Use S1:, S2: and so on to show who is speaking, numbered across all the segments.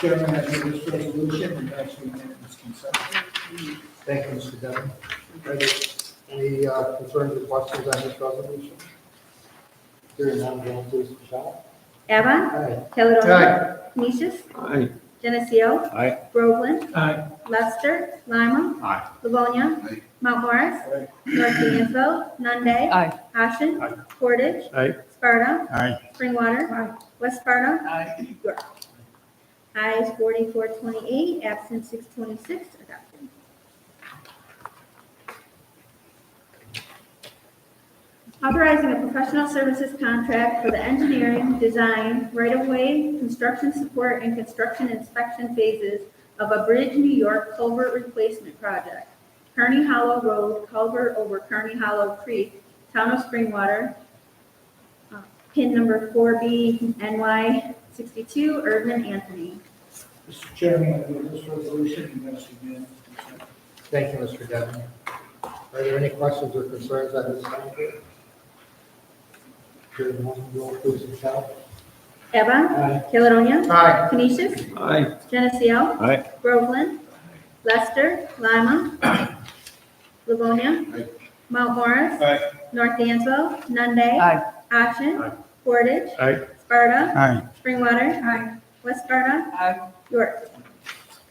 S1: Chairman, I move this resolution and ask for unanimous consent.
S2: Thank you, Mr. Devon. Are there Any uh, concerns or questions on this resolution? Hearing none, roll please, Michelle.
S3: Evan.
S2: Aye.
S3: Caledonia. Canisius.
S4: Aye.
S3: Geneseo.
S4: Aye.
S3: Groveland.
S1: Aye.
S3: Lester. Lima.
S4: Aye.
S3: Livonia.
S4: Aye.
S3: Mount Morris.
S1: Aye.
S3: North D'Anville. Nunde.
S5: Aye.
S3: Ashen.
S4: Aye.
S3: Portage.
S4: Aye.
S3: Sparta.
S4: Aye.
S3: Springwater. West Sparta.
S1: Aye.
S3: York. Ayes forty-four twenty-eight, absent six twenty-six, adopted. Authorizing a professional services contract for the engineering, design, right-of-way, construction support, and construction inspection phases of a Bridge New York culvert replacement project. Kearney Hollow Road culvert over Kearney Hollow Creek, Town of Springwater, uh, pin number four B NY sixty-two, Erdman Anthony.
S1: Mr. Chairman, I move this resolution and ask for unanimous consent.
S2: Thank you, Mr. Devon. Are there any questions or concerns on this item? Hearing none, roll please, Michelle.
S3: Evan,
S2: Aye.
S3: Caledonia,
S2: Aye.
S3: Canisius,
S4: Aye.
S3: Geneseo,
S4: Aye.
S3: Groveland, Lester, Lima, Livonia,
S4: Aye.
S3: Mount Morris,
S4: Aye.
S3: North Dansville, Nunde,
S5: Aye.
S3: Ashen,
S4: Aye.
S3: Portage,
S4: Aye.
S3: Sparta,
S4: Aye.
S3: Springwater, West Sparta,
S5: Aye.
S3: York.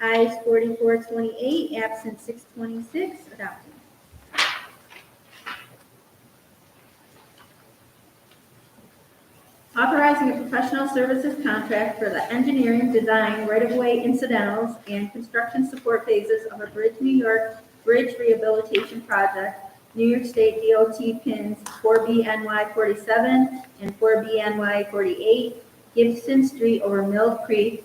S3: Ayes forty-four twenty-eight, absent six twenty-six, adopted. Authorizing a professional services contract for the engineering, design, right-of-way incidentals, and construction support phases of a Bridge New York Bridge Rehabilitation Project, New York State DOT pins four B NY forty-seven and four B NY forty-eight, Gibson Street over Mill Creek,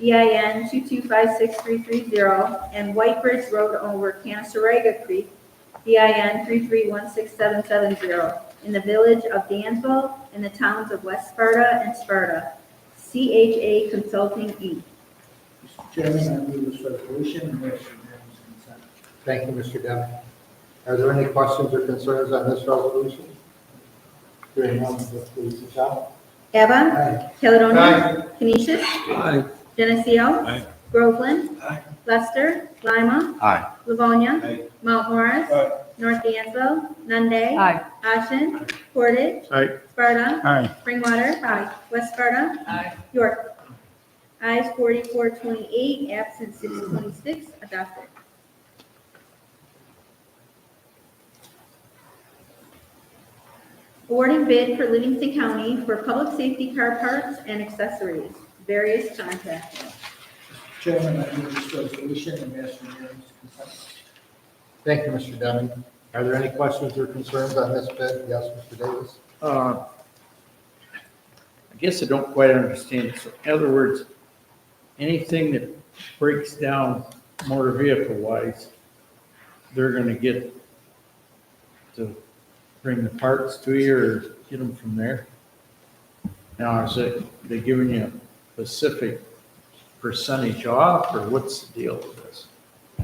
S3: E EIN 2256330, and White Bridge Road over Canasarega Creek, E EIN 3316770, in the village of Danville and the towns of West Sparta and Sparta. CHA Consulting, Inc.
S1: Mr. Chairman, I move this resolution and ask for unanimous consent.
S2: Thank you, Mr. Devon. Are there any questions or concerns on this resolution? Hearing none, vote please, Michelle.
S3: Evan,
S2: Aye.
S3: Caledonia, Canisius,
S4: Aye.
S3: Geneseo,
S4: Aye.
S3: Groveland,
S1: Aye.
S3: Lester, Lima,
S4: Aye.
S3: Livonia,
S4: Aye.
S3: Mount Morris,
S1: Aye.
S3: North Dansville, Nunde,
S5: Aye.
S3: Ashen, Portage,
S4: Aye.
S3: Sparta,
S4: Aye.
S3: Springwater, West Sparta, York. Ayes forty-four twenty-eight, absent six twenty-six, adopted. Awarding bid for Livingston County for public safety car parts and accessories, various contractors.
S1: Mr. Chairman, I move this resolution and ask for unanimous consent.
S2: Thank you, Mr. Devon. Are there any questions or concerns on this bid? Yes, Mr. Davis.
S4: Uh, I guess I don't quite understand. So in other words, anything that breaks down motor vehicle wise, they're gonna get to bring the parts to you or get them from there? Now, is it, they giving you a specific percentage off or what's the deal with this?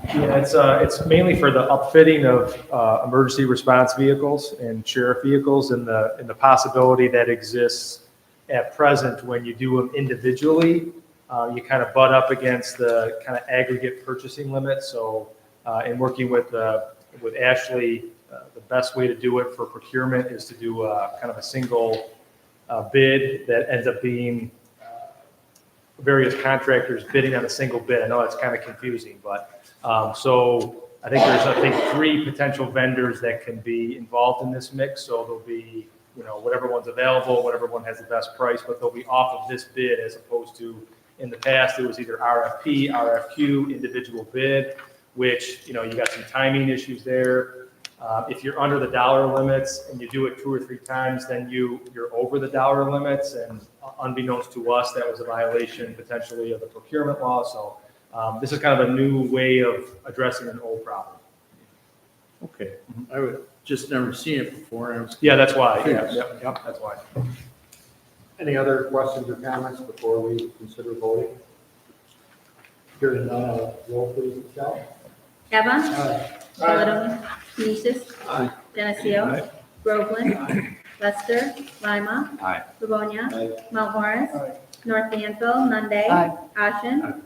S6: Yeah, it's, uh, it's mainly for the upfitting of, uh, emergency response vehicles and sheriff vehicles and the, and the possibility that exists at present when you do them individually. Uh, you kind of butt up against the kind of aggregate purchasing limit, so, uh, in working with, uh, with Ashley, uh, the best way to do it for procurement is to do, uh, kind of a single, uh, bid that ends up being uh, various contractors bidding on a single bid. I know that's kind of confusing, but um, So I think there's, I think, three potential vendors that can be involved in this mix. So there'll be, you know, whatever one's available, whatever one has the best price, but they'll be off of this bid as opposed to, in the past, it was either RFP, RFQ, individual bid, which, you know, you got some timing issues there. Uh, If you're under the dollar limits and you do it two or three times, then you, you're over the dollar limits. And unbeknownst to us, that was a violation potentially of the procurement law. So um, This is kind of a new way of addressing an old problem.
S4: Okay, I would, just never seen it before. and I was-
S6: Yeah, that's why. Yeah,
S4: Yes.
S6: yep, yep, that's why.
S2: Any other questions or comments before we consider voting? Hearing none, uh, roll please, Michelle.
S3: Evan,
S2: Aye.
S3: Caledonia, Canisius,
S4: Aye.
S3: Geneseo, Groveland, Lester, Lima,
S4: Aye.
S3: Livonia,
S4: Aye.
S3: Mount Morris,
S1: Aye.
S3: North D'Anville, Nunde,
S5: Aye.
S3: Ashen,